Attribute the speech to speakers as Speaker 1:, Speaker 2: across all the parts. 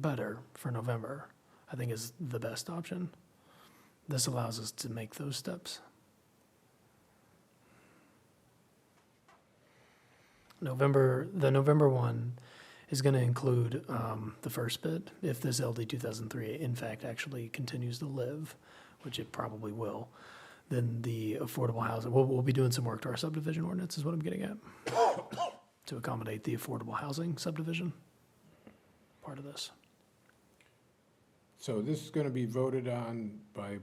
Speaker 1: better for November, I think is the best option. This allows us to make those steps. November, the November one is going to include um, the first bid, if this LD 2003 in fact actually continues to live, which it probably will, then the affordable housing, we'll, we'll be doing some work to our subdivision ordinance is what I'm getting at, to accommodate the affordable housing subdivision part of this.
Speaker 2: So this is gonna be voted on by,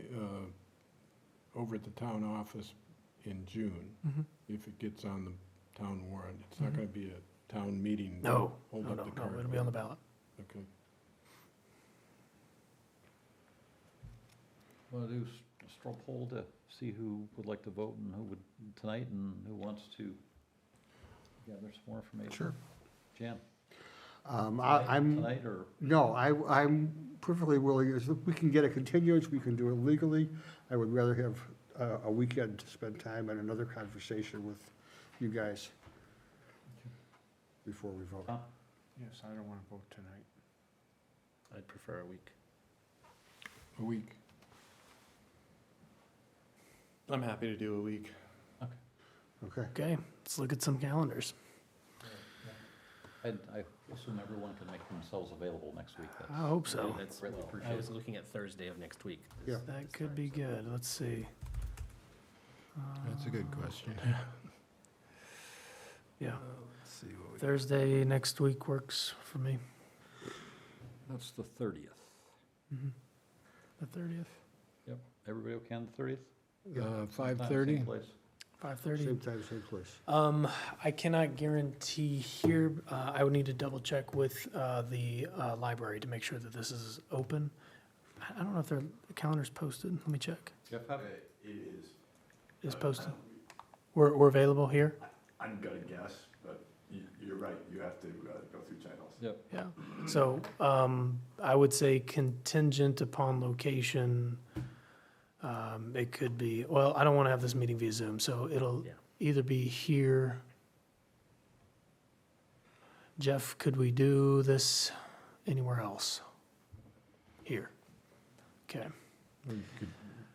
Speaker 2: uh, over at the town office in June,
Speaker 1: Mm-hmm.
Speaker 2: if it gets on the town warrant. It's not gonna be a town meeting.
Speaker 1: No,
Speaker 2: Hold
Speaker 1: no, Oh,
Speaker 2: up
Speaker 1: no, no,
Speaker 2: the current
Speaker 1: it'll be on the ballot.
Speaker 2: Okay.
Speaker 3: Want to do s- a straw poll to see who would like to vote and who would, tonight, and who wants to gather some more information? Sure. Jan?
Speaker 4: Um, I, I'm,
Speaker 3: Tonight, or,
Speaker 4: no, I, I'm perfectly willing, if we can get a continuance, we can do it legally. I would rather have a, a weekend to spend time and another conversation with you guys before we vote.
Speaker 3: Tom?
Speaker 5: Yes, I don't want to vote tonight.
Speaker 6: I'd prefer a week.
Speaker 2: A week.
Speaker 6: I'm happy to do a week.
Speaker 4: Okay,
Speaker 1: Okay, let's look at some calendars.
Speaker 3: I, I assume everyone can make themselves available next week.
Speaker 1: I
Speaker 3: That's
Speaker 1: hope so.
Speaker 6: That's,
Speaker 3: Really
Speaker 6: I
Speaker 3: appreciate
Speaker 6: was
Speaker 3: it.
Speaker 6: looking at Thursday of next week.
Speaker 4: Yeah.
Speaker 1: That could be good. Let's see. Uh,
Speaker 7: That's a good question.
Speaker 2: Uh,
Speaker 1: Yeah,
Speaker 7: Let's see what we.
Speaker 1: Thursday next week works for me,
Speaker 3: That's the thirtieth.
Speaker 1: Mm-hmm. the thirtieth,
Speaker 3: Everybody okay on the thirtieth?
Speaker 2: Uh, five thirty?
Speaker 1: five thirty.
Speaker 4: same time, same place.
Speaker 1: Um, I cannot guarantee here, uh, I would need to double check with, uh, the, uh, library to make sure that this is open. I, I don't know if their calendar's posted, let me check,
Speaker 3: Jeff, how,
Speaker 2: Uh,
Speaker 1: is posted? We're, we're available here,
Speaker 8: I'm gonna guess, but you, you're right, you have to uh, go through channels.
Speaker 3: yep,
Speaker 1: yeah, so, um, I would say contingent upon location. Um, it could be, well, I don't wanna have this meeting via Zoom, so it'll
Speaker 6: Yeah.
Speaker 1: either be here. Jeff, could we do this anywhere else? Here. Okay,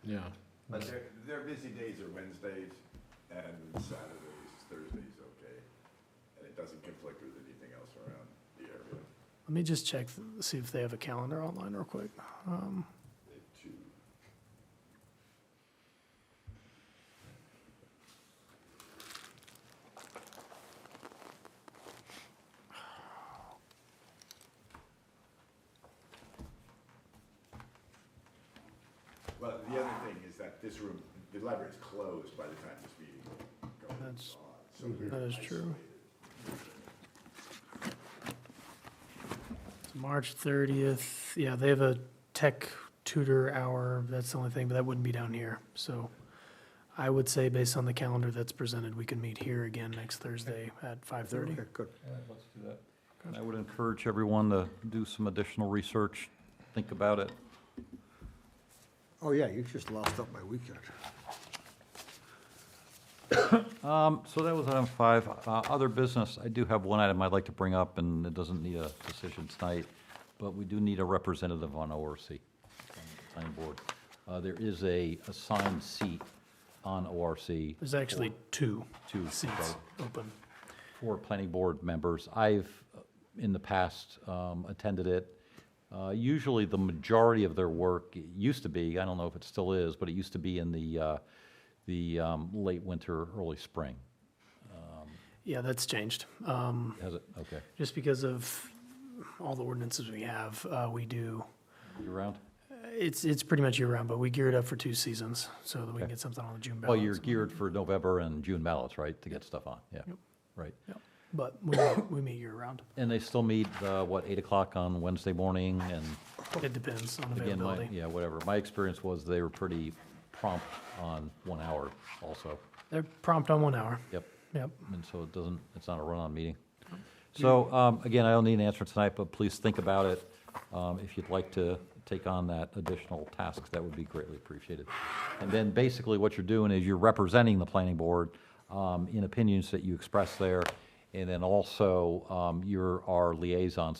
Speaker 2: Yeah.
Speaker 8: But their, their busy days are Wednesdays and Saturdays, Thursdays, okay? And it doesn't conflict with anything else around the area.
Speaker 1: let me just check, see if they have a calendar online real quick. Um,
Speaker 8: They choose. Well, the other thing is that this room, the library is closed by the time this meeting goes on.
Speaker 1: That's-
Speaker 8: So they're
Speaker 1: that is true.
Speaker 8: isolated.
Speaker 1: It's March thirtieth, yeah, they have a tech tutor hour, that's the only thing, but that wouldn't be down here, so. I would say based on the calendar that's presented, we can meet here again next Thursday at five thirty.
Speaker 4: Okay, good.
Speaker 3: all right, let's do that. And I would encourage everyone to do some additional research, think about it.
Speaker 4: Oh, yeah, you just lost up my weekend.
Speaker 3: Um, so that was item five. Uh, other business, I do have one item I'd like to bring up, and it doesn't need a decision tonight, but we do need a representative on ORC, on the planning board. Uh, there is a assigned seat on ORC
Speaker 1: There's actually two
Speaker 3: Two,
Speaker 1: seats
Speaker 3: right.
Speaker 1: open.
Speaker 3: for planning board members. I've, uh, in the past, um, attended it. Uh, Usually, the majority of their work, it used to be, I don't know if it still is, but it used to be in the, uh, the um, late winter, early spring.
Speaker 1: Yeah, that's changed. Um,
Speaker 3: Has it? Okay.
Speaker 1: just because of all the ordinances we have, uh, we do,
Speaker 3: You around?
Speaker 1: it's, it's pretty much year-round, but we gear it up for two seasons so that we can
Speaker 3: Okay.
Speaker 1: get something on the June
Speaker 3: Well, you're
Speaker 1: balance.
Speaker 3: geared for November and June ballots, right, to get stuff on, yeah,
Speaker 1: Yep.
Speaker 3: right.
Speaker 1: But we, meet- we meet year-round.
Speaker 3: And they still meet, uh, what, 8 o'clock on Wednesday morning, and
Speaker 1: It depends on
Speaker 3: again, my,
Speaker 1: availability.
Speaker 3: yeah, whatever. My experience was they were pretty prompt on one hour also,
Speaker 1: They're prompt on one hour.
Speaker 3: yep.
Speaker 1: Yep.
Speaker 3: And so it doesn't, it's not a run-on meeting. So, um, again, I don't need an answer tonight, but please think about it. Um, If you'd like to take on that additional task, that would be greatly appreciated. And then basically what you're doing is you're representing the planning board um, in opinions that you express there. And then also, um, you're our liaison,